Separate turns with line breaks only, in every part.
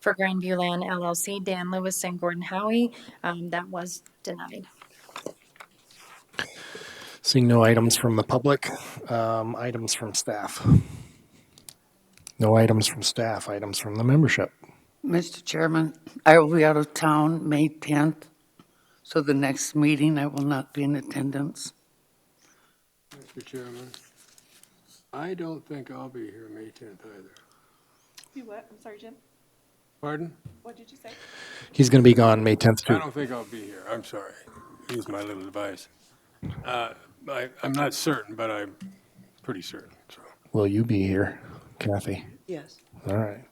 for Grandview Land LLC, Dan Lewis and Gordon Howie. Um, That was denied.
Seeing no items from the public, um, items from staff. No items from staff, items from the membership.
Mr. Chairman, I will be out of town May 10th, so the next meeting I will not be in attendance.
Mr. Chairman, I don't think I'll be here May 10th either.
You what? I'm sorry, Jim.
Pardon?
What did you say?
He's going to be gone May 10th
I
too.
don't think I'll be here. I'm sorry. Use my little device. Uh, I, I'm not certain, but I'm pretty certain, so.
Will you be here, Kathy?
Yes.
All right.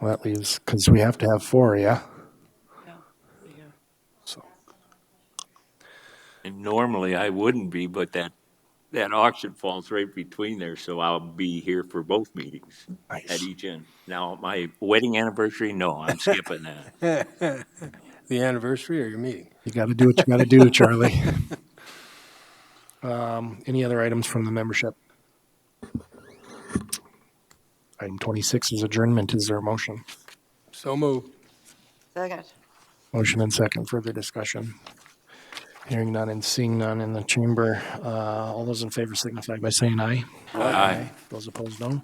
Well, that leaves, because we have to have four, yeah? So,
And normally I wouldn't be, but that, that auction falls right between there, so I'll be here for both meetings at
nice.
each end. Now, my wedding anniversary, no, I'm skipping that.
The anniversary or your meeting?
You got to do what you got to do, Charlie. Um, Any other items from the membership? Item 26 is adjournment. Is there a motion?
So moved.
Second.
Motion and second, further discussion. Hearing none and seeing none in the chamber. Uh, All those in favor signify by saying aye.
Aye.
Those opposed, no.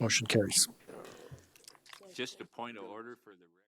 Motion carries.
Just a point of order for the.